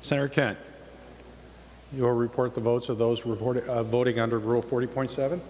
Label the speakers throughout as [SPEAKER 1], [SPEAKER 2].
[SPEAKER 1] Senator Kent, you will report the votes of those reported- uh, voting under Rule 40.7.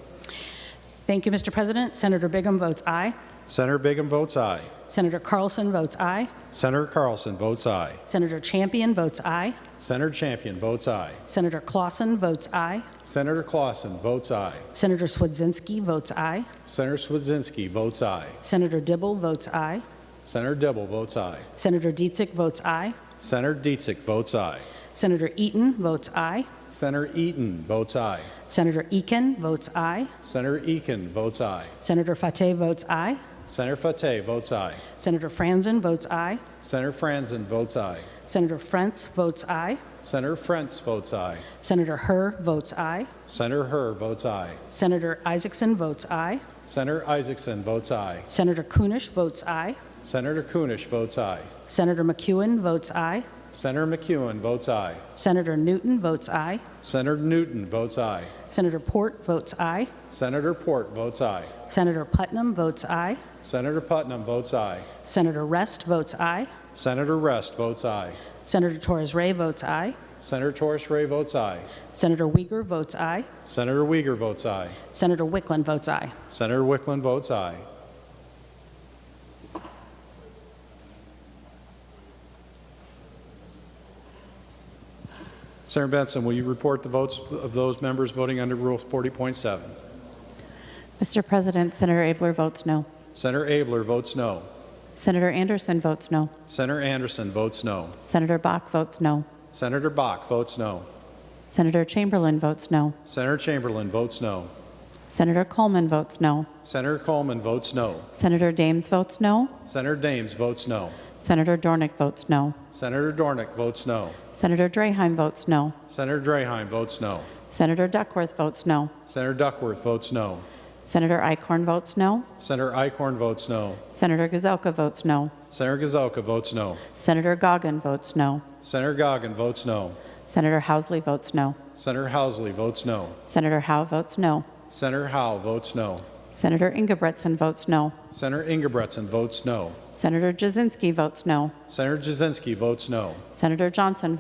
[SPEAKER 2] Thank you, Mr. President. Senator Bingham votes aye.
[SPEAKER 1] Senator Bingham votes aye.
[SPEAKER 2] Senator Carlson votes aye.
[SPEAKER 1] Senator Carlson votes aye.
[SPEAKER 2] Senator Champion votes aye.
[SPEAKER 1] Senator Champion votes aye.
[SPEAKER 2] Senator Clausen votes aye.
[SPEAKER 1] Senator Clausen votes aye.
[SPEAKER 2] Senator Swedzinski votes aye.
[SPEAKER 1] Senator Swedzinski votes aye.
[SPEAKER 2] Senator Dibble votes aye.
[SPEAKER 1] Senator Dibble votes aye.
[SPEAKER 2] Senator Dietzick votes aye.
[SPEAKER 1] Senator Dietzick votes aye.
[SPEAKER 2] Senator Eaton votes aye.
[SPEAKER 1] Senator Eaton votes aye.
[SPEAKER 2] Senator Eakin votes aye.
[SPEAKER 1] Senator Eakin votes aye.
[SPEAKER 2] Senator Fateh votes aye.
[SPEAKER 1] Senator Fateh votes aye.
[SPEAKER 2] Senator Franzen votes aye.
[SPEAKER 1] Senator Franzen votes aye.
[SPEAKER 2] Senator Frantz votes aye.
[SPEAKER 1] Senator Frantz votes aye.
[SPEAKER 2] Senator Herr votes aye.
[SPEAKER 1] Senator Herr votes aye.
[SPEAKER 2] Senator Isaacson votes aye.
[SPEAKER 1] Senator Isaacson votes aye.
[SPEAKER 2] Senator Kunish votes aye.
[SPEAKER 1] Senator Kunish votes aye.
[SPEAKER 2] Senator McEwen votes aye.
[SPEAKER 1] Senator McEwen votes aye.
[SPEAKER 2] Senator Newton votes aye.
[SPEAKER 1] Senator Newton votes aye.
[SPEAKER 2] Senator Port votes aye.
[SPEAKER 1] Senator Port votes aye.
[SPEAKER 2] Senator Putnam votes aye.
[SPEAKER 1] Senator Putnam votes aye.
[SPEAKER 2] Senator Rest votes aye.
[SPEAKER 1] Senator Rest votes aye.
[SPEAKER 2] Senator Torres Ray votes aye.
[SPEAKER 1] Senator Torres Ray votes aye.
[SPEAKER 2] Senator Uyghur votes aye.
[SPEAKER 1] Senator Uyghur votes aye.
[SPEAKER 2] Senator Wickland votes aye.
[SPEAKER 1] Senator Wickland votes aye. Senator Benson, will you report the votes of those members voting under Rule 40.7?
[SPEAKER 3] Mr. President, Senator Abler votes no.
[SPEAKER 1] Senator Abler votes no.
[SPEAKER 3] Senator Anderson votes no.
[SPEAKER 1] Senator Anderson votes no.
[SPEAKER 3] Senator Bach votes no.
[SPEAKER 1] Senator Bach votes no.
[SPEAKER 3] Senator Chamberlain votes no.
[SPEAKER 1] Senator Chamberlain votes no.
[SPEAKER 3] Senator Coleman votes no.
[SPEAKER 1] Senator Coleman votes no.
[SPEAKER 3] Senator Dames votes no.
[SPEAKER 1] Senator Dames votes no.
[SPEAKER 3] Senator Dornick votes no.
[SPEAKER 1] Senator Dornick votes no.
[SPEAKER 3] Senator Draheim votes no.
[SPEAKER 1] Senator Draheim votes no.
[SPEAKER 3] Senator Duckworth votes no.
[SPEAKER 1] Senator Duckworth votes no.
[SPEAKER 3] Senator Icorn votes no.
[SPEAKER 1] Senator Icorn votes no.
[SPEAKER 3] Senator Gazelka votes no.
[SPEAKER 1] Senator Gazelka votes no.
[SPEAKER 3] Senator Goggin votes no.
[SPEAKER 1] Senator Goggin votes no.
[SPEAKER 3] Senator Housley votes no.
[SPEAKER 1] Senator Housley votes no.
[SPEAKER 3] Senator Howe votes no.
[SPEAKER 1] Senator Howe votes no.
[SPEAKER 3] Senator Ingebretson votes no.
[SPEAKER 1] Senator Ingebretson votes no.
[SPEAKER 3] Senator Jasinski votes no.
[SPEAKER 1] Senator Jasinski votes no.
[SPEAKER 3] Senator Johnson